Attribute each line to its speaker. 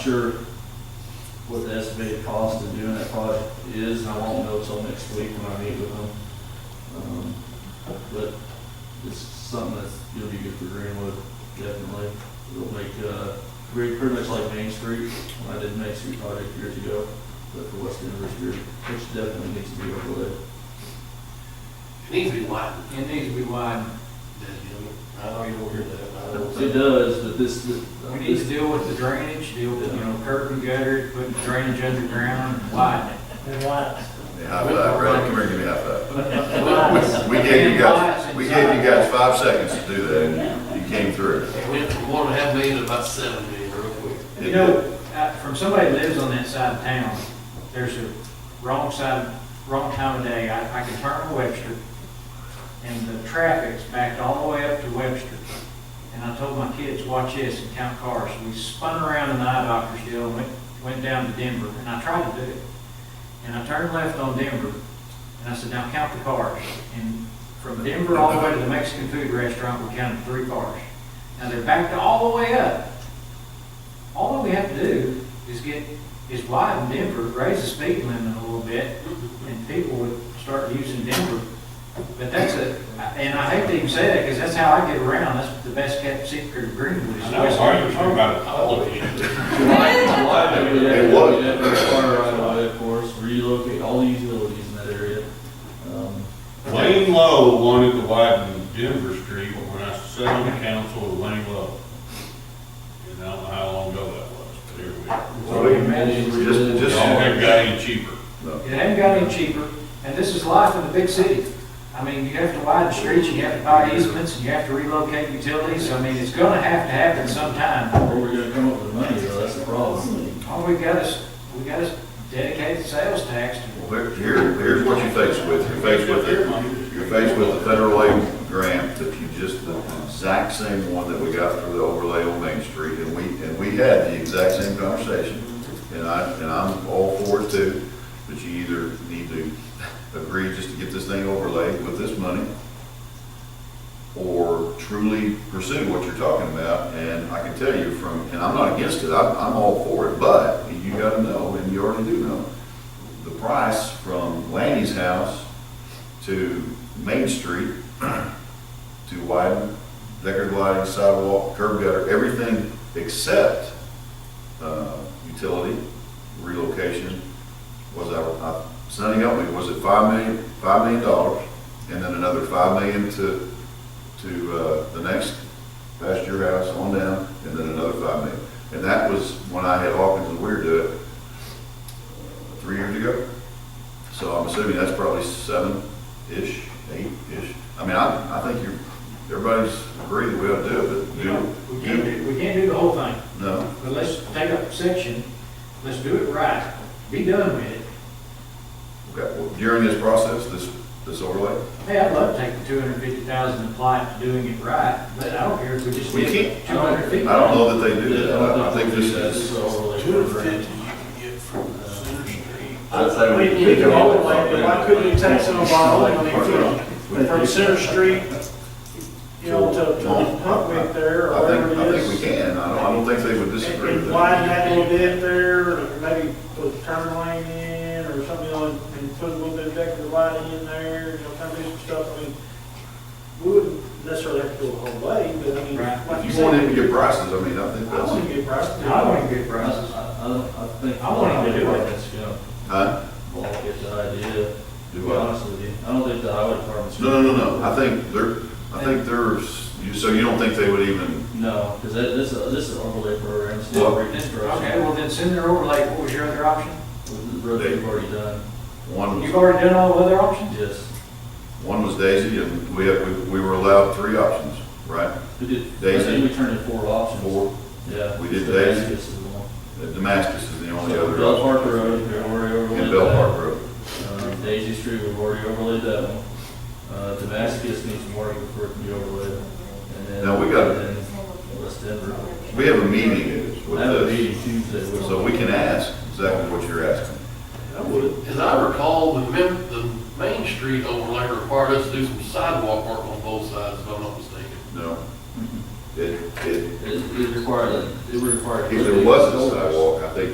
Speaker 1: sure what the estimated cost of doing that project is, I won't know till next week when I meet with them. Um, But it's something that's gonna be good for Greenwood, definitely. It'll make, uh, pretty, pretty much like Main Street, when I did Main Street project years ago, but for West Denver Street, which definitely needs to be overlaid.
Speaker 2: It needs to be widened.
Speaker 3: It needs to be widened.
Speaker 2: I know you don't hear that. I don't
Speaker 1: It does, but this, this.
Speaker 3: We need to deal with the drainage, deal with, you know, curb and gutter, putting drainage underground, and widen it.
Speaker 4: And lots,
Speaker 5: Yeah, Half that, Brad, come here, give me half that.
Speaker 4: lots.
Speaker 5: We gave you guys, we gave you guys five seconds to do that, and you came through.
Speaker 2: It went from one and a half million to about seven million real quick.
Speaker 3: You know, uh, from somebody that lives on that side of town, there's a wrong side, wrong time of day, I, I can turn on Webster, and the traffic's backed all the way up to Webster. And I told my kids, watch this and count cars. We spun around in the eye doctor's deal, and went, went down to Denver, and I tried to do it. And I turned left on Denver, and I said, now count the cars. And from Denver all the way to the Mexican food restaurant, we counted three cars. Now they're backed all the way up. All that we have to do is get, is widen Denver, raise the speed limit a little bit, and people would start using Denver. But that's a, and I hate to even say that, because that's how I get around, that's the best kept secret of Greenwood. is
Speaker 6: I know, it's
Speaker 3: West
Speaker 6: hard to talk about it. I love it.
Speaker 5: It was.
Speaker 1: of course, relocate all the utilities in that area. Um,
Speaker 6: Lane Lowe wanted to widen Denver Street when I sat on the council with Lane Lowe. And I don't know how long ago that was, but here we are.
Speaker 5: So we- Just,
Speaker 6: It all
Speaker 5: just,
Speaker 6: got any cheaper.
Speaker 5: no.
Speaker 3: It hadn't got any cheaper, and this is life in the big city. I mean, you have to widen streets, you have to buy easements, and you have to relocate utilities, I mean, it's gonna have to happen sometime.
Speaker 1: Where we're gonna come up with the money, though, that's the problem.
Speaker 3: All we got is, we got is dedicated sales tax to
Speaker 5: Here, here's what you're faced with, you're faced with it. You're faced with the federal aid grant that you just, the exact same one that we got for the overlay on Main Street, and we, and we had the exact same conversation. And I, and I'm all for it too, but you either need to agree just to get this thing overlaid with this money, or truly pursue what you're talking about, and I can tell you from, and I'm not against it, I'm, I'm all for it, but you gotta know, and you already do know, the price from Lanny's house to Main Street, to widen, decorative lighting, sidewalk, curb gutter, everything except, uh, utility relocation was our, uh, Sonny helped me, was it five million, five million dollars? And then another five million to, to, uh, the next past your house on down, and then another five million. And that was when I had Hawkins and Weir do it, uh, three years ago. So I'm assuming that's probably seven-ish, eight-ish. I mean, I, I think you're, everybody's agreed that we ought to do it, but
Speaker 3: You know,
Speaker 5: do,
Speaker 3: we can't
Speaker 5: you,
Speaker 3: do, we can't do the whole thing,
Speaker 5: no,
Speaker 3: but let's take a section, let's do it right, be done with it.
Speaker 5: okay, well, during this process, this, this overlay?
Speaker 3: Hey, I'd love to take the two hundred fifty thousand and apply it to doing it right, but I don't care if we just
Speaker 5: We
Speaker 3: get
Speaker 5: can't-
Speaker 3: two hundred fifty.
Speaker 5: I don't know that they do that, I I think this is,
Speaker 2: Two hundred fifty you can get from the center street.
Speaker 5: I'd say we-
Speaker 4: We we can overlay, but why couldn't you tax it on Bottle Lake from, from Center Street, you know, to, to Huntwick there, or
Speaker 5: I
Speaker 4: wherever
Speaker 5: think, I
Speaker 4: it
Speaker 5: think we
Speaker 4: is?
Speaker 5: can, I don't, I don't think they would
Speaker 4: And
Speaker 5: disagree with
Speaker 4: and widen
Speaker 5: that.
Speaker 4: that little bit there, or maybe put a turn lane in, or something, you know, and- and put a little bit of decorative lighting in there, you know, kind of do some stuff, I mean, we wouldn't necessarily have to go the whole way, but I mean,
Speaker 3: Right.
Speaker 4: like you
Speaker 5: If you want them to
Speaker 4: said,
Speaker 5: get prices, I mean, I think
Speaker 4: I want
Speaker 5: that's,
Speaker 4: to get prices.
Speaker 3: I want to get
Speaker 1: I,
Speaker 3: prices.
Speaker 1: I, don't- I think.
Speaker 3: I want him to do it.
Speaker 1: That's gonna
Speaker 5: huh?
Speaker 1: block it, the idea, to be
Speaker 5: Do I?
Speaker 1: honest with you. I don't think the highway department's.
Speaker 5: No, no, no, no, I think they're, I think there's, you, so you don't think they would even,
Speaker 1: No, because that, this, uh, this is overlay program, it's not
Speaker 5: Well-
Speaker 1: reconstruction.
Speaker 3: Okay, well then send it over, like, what was your other option?
Speaker 1: The road they've already done,
Speaker 5: one was
Speaker 3: You've already done all the other options?
Speaker 1: yes.
Speaker 5: One was Daisy, and we, had- we- we were allowed three options, right?
Speaker 1: We did, I
Speaker 5: Daisy.
Speaker 1: think we turned in four options.
Speaker 5: Four,
Speaker 1: Yeah.
Speaker 5: We did
Speaker 1: So
Speaker 5: Daisy.
Speaker 1: that's just the one.
Speaker 5: Damascus is the only
Speaker 1: So
Speaker 5: other.
Speaker 1: Bell
Speaker 5: option.
Speaker 1: Park Road, we already overlaid
Speaker 5: And Bell
Speaker 1: that.
Speaker 5: Park Road.
Speaker 1: Um, Daisy Street, we've already overlaid that one. Uh, Damascus needs more before it can be overlaid. And then-
Speaker 5: Now, we got-
Speaker 1: and then West Denver.
Speaker 5: We have a meeting
Speaker 1: I
Speaker 5: with
Speaker 1: have a
Speaker 5: this,
Speaker 1: meeting Tuesday. with-
Speaker 5: so we can ask exactly what you're asking.
Speaker 4: I would.
Speaker 2: As I recall, the mem, the main street overlay required us to do some sidewalk work on both sides, if I'm not mistaken.
Speaker 5: No? It, it,
Speaker 1: Mm-hmm. It, it required, a- it would require.
Speaker 5: if there was a